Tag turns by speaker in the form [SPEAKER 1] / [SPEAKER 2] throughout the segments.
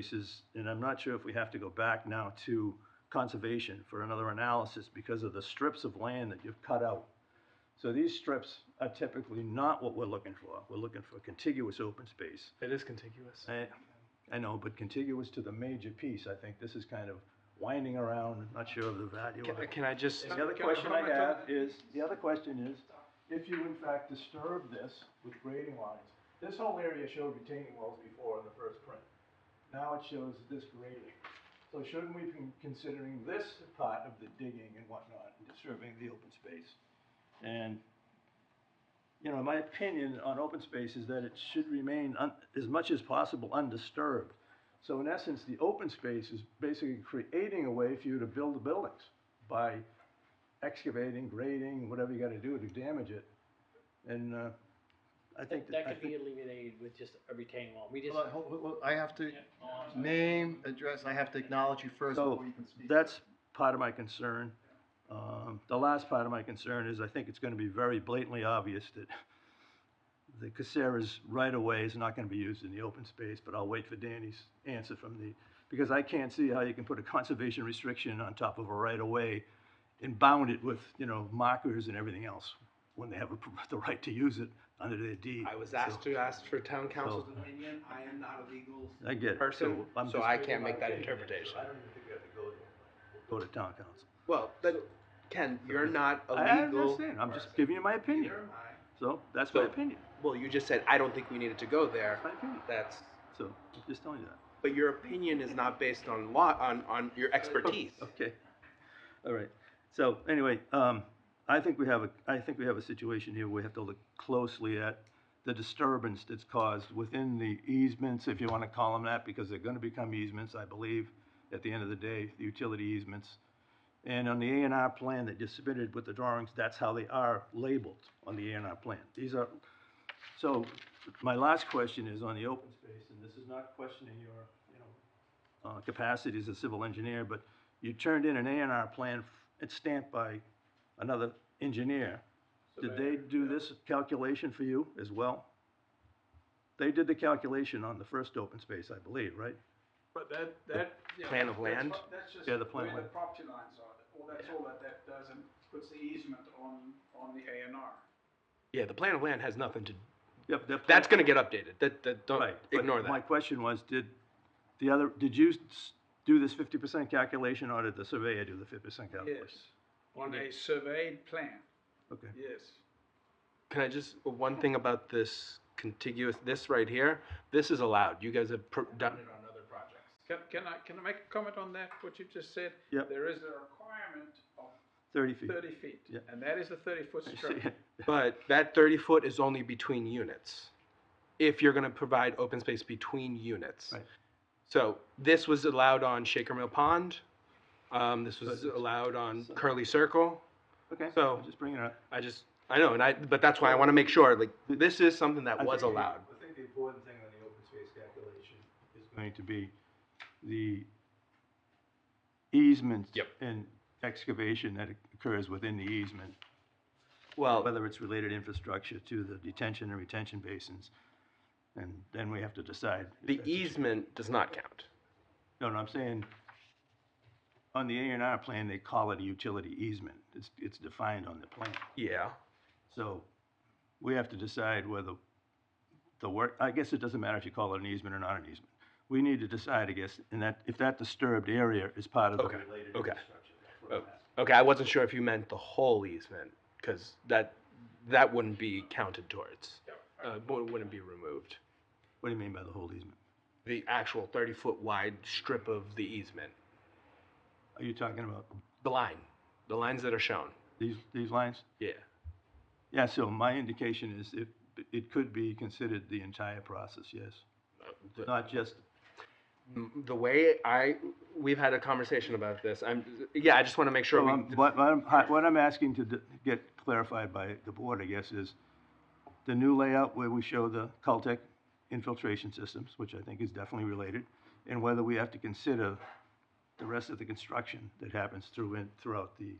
[SPEAKER 1] cases, and I'm not sure if we have to go back now to conservation for another analysis because of the strips of land that you've cut out. So these strips are typically not what we're looking for. We're looking for contiguous open space.
[SPEAKER 2] It is contiguous.
[SPEAKER 1] I, I know, but contiguous to the major piece, I think this is kind of winding around, not sure of the value
[SPEAKER 2] Can,
[SPEAKER 1] of it.
[SPEAKER 2] can I just,
[SPEAKER 1] The other
[SPEAKER 3] Can I
[SPEAKER 1] question I
[SPEAKER 3] comment on
[SPEAKER 1] have
[SPEAKER 3] that?
[SPEAKER 1] is, the other question is, if you in fact disturb this with grading lines, this whole area showed retaining walls before in the first print. Now it shows this grading. So shouldn't we be considering this part of the digging and whatnot, and disturbing the open space? And, you know, my opinion on open space is that it should remain un- as much as possible undisturbed. So in essence, the open space is basically creating a way for you to build the buildings by excavating, grading, whatever you gotta do to damage it. And, uh, I think.
[SPEAKER 4] That, that
[SPEAKER 1] I
[SPEAKER 4] could be
[SPEAKER 1] think-
[SPEAKER 4] alleviated with just a retaining wall. We just,
[SPEAKER 3] Hold on, hold- hold- hold- Oh, I have to name, address, I have to acknowledge you first
[SPEAKER 1] So,
[SPEAKER 3] before you can speak.
[SPEAKER 1] That's part of my concern. Um, the last part of my concern is I think it's gonna be very blatantly obvious that the Caceres right of way is not gonna be used in the open space, but I'll wait for Danny's answer from the, because I can't see how you can put a conservation restriction on top of a right of way and bound it with, you know, markers and everything else when they have a, the right to use it under their deed.
[SPEAKER 2] I was asked to ask for town council's
[SPEAKER 1] So-
[SPEAKER 5] opinion, I am not a legal.
[SPEAKER 1] I get it.
[SPEAKER 2] person,
[SPEAKER 1] So I'm
[SPEAKER 2] so
[SPEAKER 1] just-
[SPEAKER 2] I can't make that interpretation.
[SPEAKER 1] Go to town council.
[SPEAKER 2] Well, but Ken, you're not a
[SPEAKER 1] I
[SPEAKER 2] legal.
[SPEAKER 1] understand, I'm just giving you my opinion.
[SPEAKER 5] Neither am I.
[SPEAKER 1] So that's my
[SPEAKER 2] So-
[SPEAKER 1] opinion.
[SPEAKER 2] Well, you just said I don't think we needed to go there.
[SPEAKER 1] That's my opinion.
[SPEAKER 2] That's,
[SPEAKER 1] So I'm just telling you that.
[SPEAKER 2] but your opinion is not based on law, on on your expertise.
[SPEAKER 1] Okay. All right. So anyway, um, I think we have a I think we have a situation here. where We have to look closely at the disturbance that's caused within the easements, if you want to call them that, because they're going to become easements, I believe, at the end of the day, the utility easements. And on the A and R plan that you submitted with the drawings, that's how they are labeled on the A and R plan. These are, so my last question is on the open space, and this is not questioning your, you know, uh, capacity as a civil engineer, but you turned in an A and R plan, f- it's stamped by another engineer. Did they do this calculation for you as well? They did the calculation on the first open space, I believe, right?
[SPEAKER 6] But that, that. yeah,
[SPEAKER 2] plan of
[SPEAKER 6] that's
[SPEAKER 2] land?
[SPEAKER 6] fi- That's just
[SPEAKER 1] Yeah,
[SPEAKER 6] where
[SPEAKER 1] the plan
[SPEAKER 6] the
[SPEAKER 1] land.
[SPEAKER 6] property lines are, all, that's all that that does, and puts the easement on, on the A and R.
[SPEAKER 2] Yeah, the plan of land has nothing to.
[SPEAKER 1] Yep, their plan-
[SPEAKER 2] That's going to get updated. That, that don't
[SPEAKER 1] Right, but
[SPEAKER 2] ignore
[SPEAKER 1] My
[SPEAKER 2] that.
[SPEAKER 1] question was, did the other, did you s- do this fifty percent calculation or did the surveyor do the fifty percent calculation?
[SPEAKER 6] Yes, on a surveyed plan,
[SPEAKER 1] Okay,
[SPEAKER 6] yes.
[SPEAKER 2] Can I just one thing about this contiguous? This right here. This is allowed. You guys have pr- done.
[SPEAKER 5] On other projects.
[SPEAKER 6] Can, can I, can I make a comment on that, what you just said?
[SPEAKER 1] Yep.
[SPEAKER 6] There is a requirement of
[SPEAKER 1] thirty feet.
[SPEAKER 6] thirty feet,
[SPEAKER 1] Yeah.
[SPEAKER 6] and that is the thirty-foot
[SPEAKER 1] I see
[SPEAKER 6] strip.
[SPEAKER 1] it.
[SPEAKER 2] But that thirty foot is only between units. If you're gonna provide open space between units.
[SPEAKER 1] Right.
[SPEAKER 2] So this was allowed on Shaker Mill Pond, um, this was
[SPEAKER 1] So it's-
[SPEAKER 2] allowed on
[SPEAKER 1] so-
[SPEAKER 2] Curly Circle,
[SPEAKER 1] Okay,
[SPEAKER 2] So-
[SPEAKER 1] I'm just bringing it up.
[SPEAKER 2] I just, I know, and I, but that's why I wanna make sure, like, this is something
[SPEAKER 1] I
[SPEAKER 2] that
[SPEAKER 1] think
[SPEAKER 2] was
[SPEAKER 1] the-
[SPEAKER 2] allowed.
[SPEAKER 1] I think the important thing on the open space calculation is going to be the easement.
[SPEAKER 2] Yep.
[SPEAKER 1] And excavation that occurs within the easement,
[SPEAKER 2] Well,
[SPEAKER 1] whether it's related infrastructure to the detention and retention basins. And then we have to decide. if
[SPEAKER 2] the
[SPEAKER 1] that's a-
[SPEAKER 2] easement does not count.
[SPEAKER 1] No, no, I'm saying, on the A and R plan, they call it a utility easement. It's, it's defined on the plan.
[SPEAKER 2] Yeah.
[SPEAKER 1] So we have to decide whether the work, I guess it doesn't matter if you call it an easement or not an easement. We need to decide, I guess, and that, if that disturbed area is part of the
[SPEAKER 2] Okay,
[SPEAKER 1] related
[SPEAKER 2] okay. Oh.
[SPEAKER 1] infrastructure. That's what I'm asking.
[SPEAKER 2] Okay, I wasn't sure if you meant the whole easement, cause that, that wouldn't be counted towards. Uh, wou- wouldn't be removed.
[SPEAKER 1] What do you mean by the whole easement?
[SPEAKER 2] the actual 30 foot wide strip of the easement.
[SPEAKER 1] Are you talking about
[SPEAKER 2] The line. The lines that are shown.
[SPEAKER 1] these, these lines?
[SPEAKER 2] Yeah.
[SPEAKER 1] Yeah, so my indication is it, it could be considered the entire process, yes.
[SPEAKER 2] The,
[SPEAKER 1] Not just,
[SPEAKER 2] the way I. We've had a conversation about this. I'm. Yeah, I just want to make sure
[SPEAKER 1] So
[SPEAKER 2] we.
[SPEAKER 1] I'm- Um, what, what I'm, what I'm asking to d- get clarified by the board, I guess, is the new layout where we show the Caltech infiltration systems, which I think is definitely related, and whether we have to consider the rest of the construction that happens through, in- throughout the,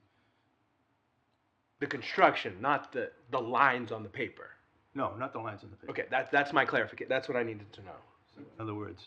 [SPEAKER 2] the construction, not the, the lines on the paper.
[SPEAKER 1] no, not the lines on the paper.
[SPEAKER 2] Okay, that, that's my clarification. That's what I needed to know.
[SPEAKER 1] In other words,